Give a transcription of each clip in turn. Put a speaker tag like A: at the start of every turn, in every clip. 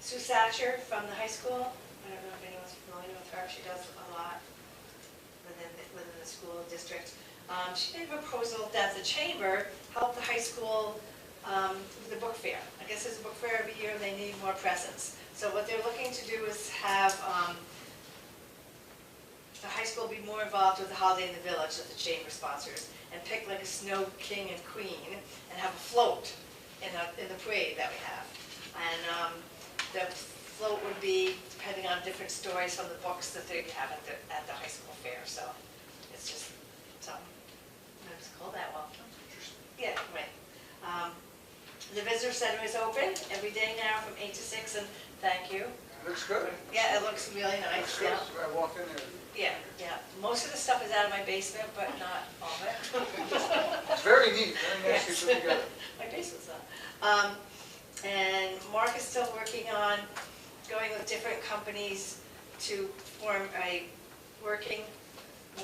A: Sue Satcher from the high school. I don't know if anyone's familiar with her, she does a lot within, the- within the school district. Um, She made a proposal that the chamber help the high school um, with the book fair. I guess there's a book fair every year, and they need more presence. So what they're looking to do is have um, the high school be more involved with the holiday in the village that the chamber sponsors, and pick like a snow king and queen, and have a float in the, in the parade that we have. And um, the float would be depending on different stories from the books that they have at the, at the high school fair, so it's just, so, I just call that well. Yeah, right. Um, The visitor center is open every day now from eight to six, and thank you.
B: Looks good.
A: Yeah, it looks really
B: Looks
A: nice,
B: good.
A: yeah.
B: I walked in there.
A: Yeah, yeah. Most of the stuff is out of my basement, but not all of it.
B: It's very neat, very
A: Yes.
B: nicely put together.
A: My basement's not. Um, and Mark is still working on going with different companies to form a working,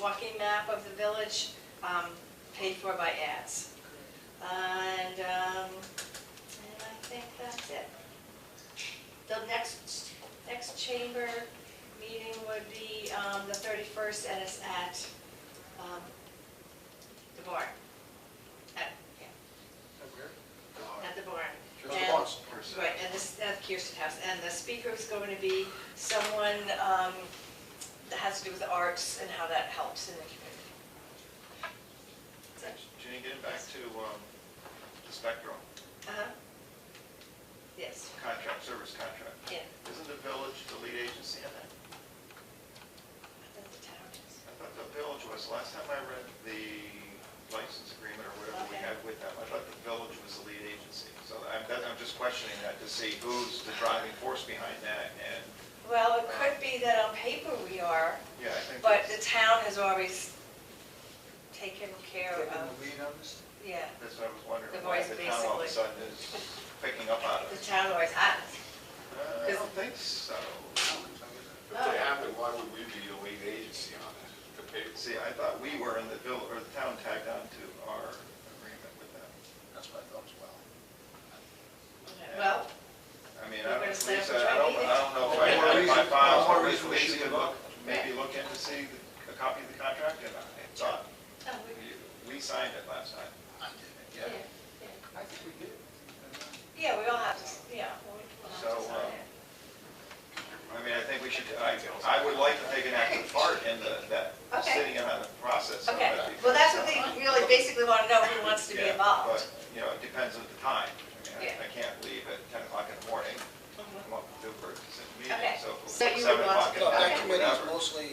A: walking map of the village, um, paid for by ads. And, um, and I think that's it. The next, next chamber meeting would be, um, the thirty-first, and it's at, um, the barn. At, yeah, at the barn.
B: Just
A: And-
B: once.
A: Right, and this, at Kirsten House, and the speaker is going to be someone, um, that has to do with the arts and how that helps in the community.
C: Jenny, getting back to um, the Spectrum
A: Uh-huh. Yes,
C: contract, service contract,
A: yeah,
C: isn't the village the lead agency in that?
A: that's the town.
C: I thought the village was, last time I read the license agreement or whatever we
A: Okay.
C: had with them, I thought the village was the lead agency. So I'm, that- I'm just questioning that to see who's the driving force behind that, and,
A: Well, it could be that on paper we are,
C: yeah, I think.
A: but the
C: that's-
A: town has always taken care
B: Taking
A: of,
B: the lead on this?
A: yeah,
C: That's what I was wondering,
A: The
C: why
A: voice
C: the town all of a
A: basically.
C: sudden is picking up on
A: the
C: it.
A: town always has.
C: Uh, I don't think so.
D: If they have it, why would we be the lead agency on it? The paper,
C: See, I thought we were in the village, or the town tagged on to our agreement with them.
D: that's what I thought as well.
A: Well,
C: I mean,
A: We're
C: I don't,
A: gonna set up a
C: Lisa, I don't,
A: training.
C: I don't know if I
B: Well, more
C: have my
B: reason-
C: files,
B: well,
C: but
B: more
C: we
B: reason we should
C: should look,
B: look.
C: maybe look in to see the- a copy of the contract, and I thought,
A: oh, we-
C: we- we signed it last time.
D: I did
A: yeah,
D: it, yeah.
A: yeah.
B: I think we did.
A: Yeah, we all have to, yeah, we'll we'll have to
C: So, uh,
A: sign it.
C: I mean, I think we should, I, I would like to take an active part in the, that,
A: Okay.
C: sitting in on the process. of
A: Okay,
C: that,
A: well,
C: because-
A: that's what they really basically want to know, who wants to be
C: Yeah,
A: involved.
C: But, you know, it depends on the time. I mean,
A: Yeah.
C: I- I can't leave at ten o'clock in the morning,
A: Mhm.
C: I'm up at Newburgh to sit in
A: Okay.
C: meetings, so if it was
A: So you would
C: seven
A: want to-
C: o'clock in the
E: Well, that
C: morning,
E: committee is
C: whatever.
E: mostly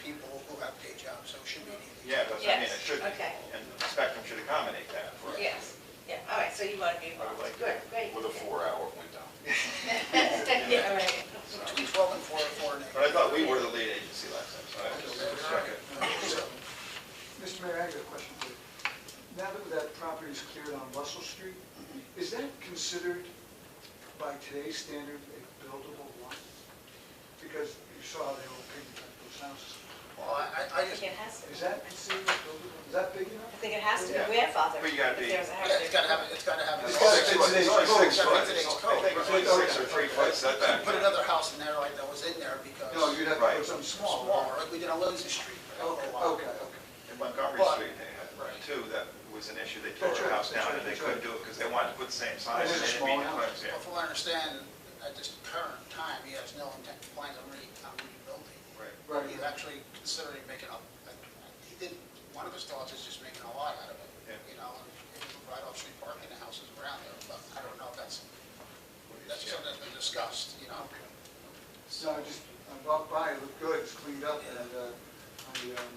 E: people who have day jobs, so it should be an easy.
C: Yeah, that's what I mean,
A: Yes,
C: it should be,
A: okay.
C: and the spectrum should accommodate that for us.
A: Yes, yeah, all right, so you want to be involved,
C: like
A: good, great.
D: With a four-hour window.
A: Yeah, all right.
C: So-
E: Between twelve and four, four and eight.
C: But I thought we were the lead agency last time, so I was just checking.
B: Mr. Mayor, I have a question for you. Now that that property is cleared on Russell Street, is that considered by today's standard a buildable lot? Because you saw they were picking up those houses.
E: Well, I, I-
A: I
E: I just,
A: think it has to,
B: Is that considered a buildable, is that big
A: I
B: enough?
A: think it has to be
C: Yeah.
A: grandfathered.
C: But you
A: if
C: gotta be-
A: there was a house
E: it's gotta
A: there.
E: have, it- it's gotta have.
B: It's
E: it.
B: gotta be
E: It's-
B: today's
C: It's only six
E: code.
C: foot.
E: Today's
C: so
E: code,
C: I think it's only
B: right.
C: six or three foot setback.
E: Put another house in there like that was in there because.
B: No, you'd have to
C: Right.
B: put something smaller.
E: Smaller, like we did on Lindsay Street.
B: Okay, okay, okay.
C: In Montgomery
E: But-
C: Street, they had run two, that was an issue, they tore
B: That's
C: a
B: right,
C: house
B: that's
C: down
B: right,
C: and they
B: that's
C: couldn't
B: right.
C: do it because they wanted to put the same
B: It is
C: size and
B: a
C: they didn't
B: small
C: meet the
B: house.
C: claims,
E: But
C: yeah.
E: from what I understand, at this current time, he has no intent, plans on re, on rebuilding.
C: Right.
B: Right.
E: He's actually considering making up, like, he did, one of his thoughts is just making a lot out of
C: Yeah.
E: it, you know, and it would provide off-street parking to houses around there, but I don't know if that's, that's
C: Yeah.
E: something that's been discussed, you know?
B: So I just, I walked by, it looked good, it's cleaned up, and uh, I, um,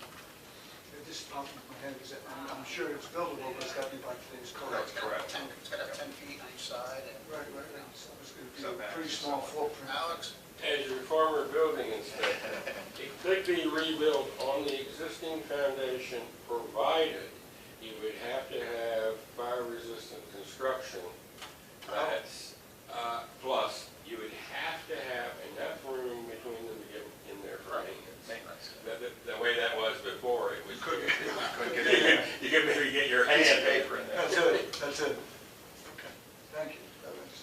B: it just popped in my head, because I'm, I'm sure it's buildable, but it's got to be by today's code.
E: It's gotta have
C: correct.
E: ten- It's gotta have ten feet on each side and.
B: Right, right, right. so it's
C: So
B: going to be a
C: back
B: pretty
C: to
B: small
C: someone.
B: footprint.
E: Alex,
F: As your former building inspector, it could be rebuilt on the existing foundation, provided you would have to have fire-resistant construction. uh,
E: Oh,